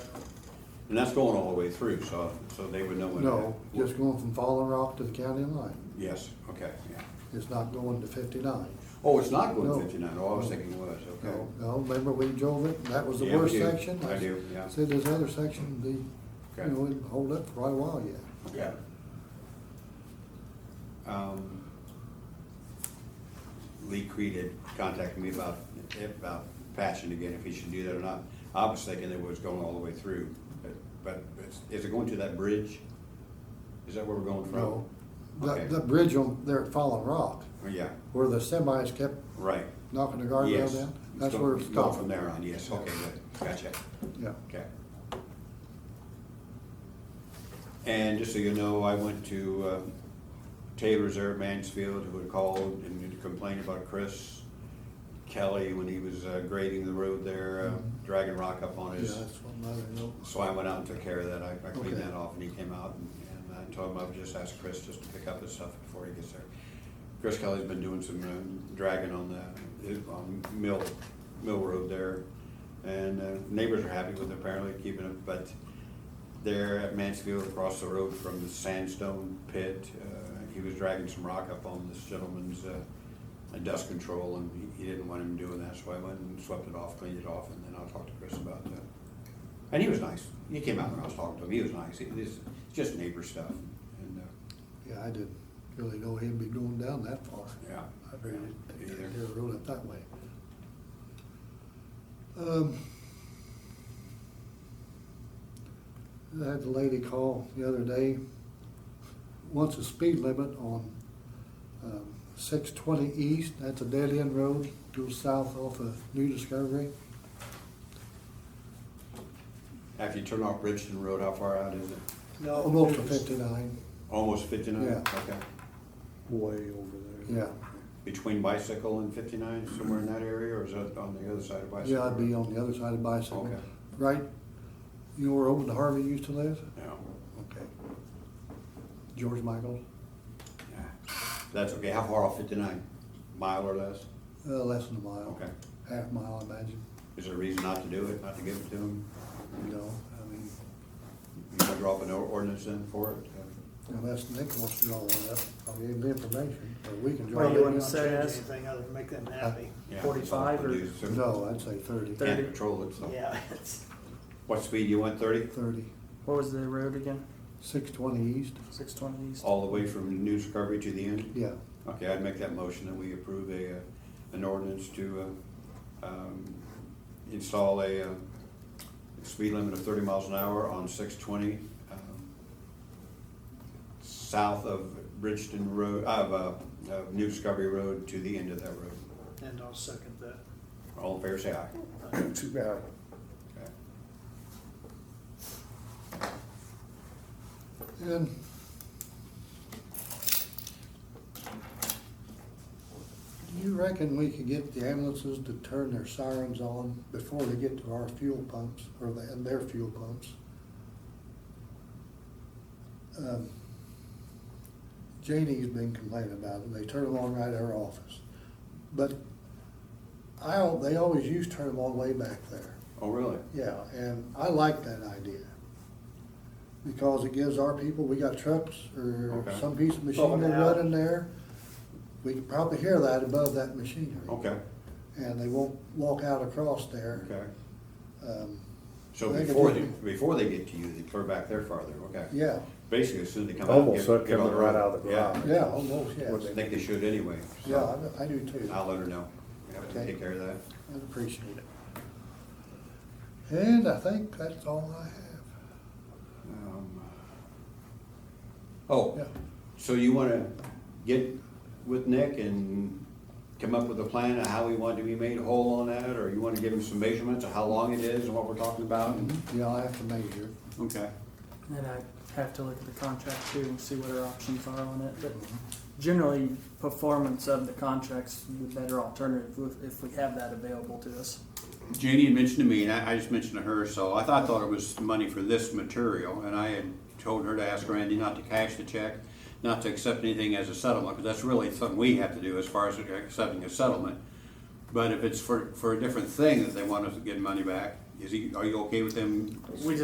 And that's going all the way through, so, so they would know when. No, just going from Fallen Rock to the county line. Yes, okay, yeah. It's not going to fifty-nine. Oh, it's not No. going fifty-nine, oh, I was thinking it was, okay. No, no, remember we drove it, and that was the Yeah, we worst do. section? I do, yeah. Said this other section, the, you Okay. know, it'd hold up for quite a while yet. Yeah. Um, Lee Creed had contacted me about, about patching again, if he should do that or not. I was thinking it was going all the way through, but, but it's- is it going to that bridge? Is that where we're going from? No, Okay. that, that bridge on, there at Fallen Rock, Oh, Yeah, where the semis kept right. knocking the Yes. guardrail down, It's that's go- where it's go From stopped. there on, yes, okay, good, gotcha, Yeah, okay. And just so you know, I went to uh, Taylor Reserve Mansfield, who had called and complained about Chris Kelly when he was uh, grading the road there, uh, dragging rock up on Mm-hmm. yeah, his. that's one other note. So I went out and took care of that, I I cleaned Okay. that off, and he came out, and and I told him I would just ask Chris just to pick up his stuff before he gets there. Chris Kelly's been doing some um, dragging on the, on Mill, Mill Road there, and uh, neighbors are happy with it, apparently keeping it, but there at Mansfield, across the road from the sandstone pit, uh, he was dragging some rock up on this gentleman's uh, dust control, and he he didn't want him doing that, so I went and swept it off, cleaned it off, and then I'll talk to Chris about that. And he was nice. He came out when I was talking to him. He was nice. It is just neighbor stuff. And uh, Yeah, I didn't really know he'd be going down that far. yeah, I figured Me it either. it would roll it that way. Um, I had a lady call the other day, wants a speed limit on um, six twenty east, that's a dead end road, goes south off of New Discovery. after you turn off Bridgeton Road, how far out is it? No, Almost to there's fifty-nine, Almost 59. Yeah. Okay. Way over there. yeah, Between bicycle and 59, somewhere in that area, or is that on the other side of bicycle? yeah, I'd be on the other side of bicycle. Okay. Right, you know where Owen Harvey used to live? No. Okay. George Michael, Yeah. That's okay. How far off 59? Mile or less? uh, less than a mile. Okay. Half mile, I imagine, Is there a reason not to do it, not to give it to them? you know, I mean, You can draw up an or- ordinance in for it? unless Nick wants to draw one up, I'll give him the information, but we can draw Well, it. you wouldn't up. say change that's- anything other than make them happy. Yeah, that's all 45 we or- do is- No, I'd say thirty. Can't 30. control it, so. Yeah, it's, What speed you want, 30? Thirty, What was the road again? six twenty east, Six twenty east. All the way from New Discovery to the end? yeah, Okay, I'd make that motion that we approve a, uh, an ordinance to uh, um, install a uh, speed limit of thirty miles an hour on six twenty uh, south of Bridgeton Road, of uh, of New Discovery Road to the end of that road. and I'll second that. All in favor, say aye. Too bad. Okay. and. Do you reckon we could get the ambulances to turn their sirens on before they get to our fuel pumps, or the- and their fuel pumps? um, Janie's been complaining about it, they turn them on right at her office. But I, al- they always used to turn them on way back there. Oh, really? Yeah, and I like that idea. Because it gives our people, we got trucks or Okay. some piece of Pulling machinery it out. running there. We can probably hear that above that machinery. Okay, And they won't walk out across there. okay. Um, So I think before, it- they- before they get to you, they clear back there farther, okay? Yeah, Basically, as soon as they come out. Almost get- like get on coming right out of the Yeah. garage. yeah, almost, yeah. I think they should anyway. so Yeah, I I do too. I'll let her know. We have to Okay. take care of that. I'd appreciate it. And I think that's all I have. Um, Oh, Yeah, so you wanna get with Nick and come up with a plan of how we want to be made whole on that? Or you wanna give him some measurements of how long it is and what we're talking about? Mm-hmm. yeah, I have to measure. Okay. And I have to look at the contract too and see what our options are on it, but generally, performance of the contract's the better alternative if- if we have that available to us. Janie had mentioned to me, and I, I just mentioned to her, so I thought, thought it was money for this material, and I had told her to ask Randy not to cash the check, not to accept anything as a settlement, because that's really something we have to do as far as accepting a settlement. But if it's for, for a different thing that they want us to get money back, is he, are you okay with them We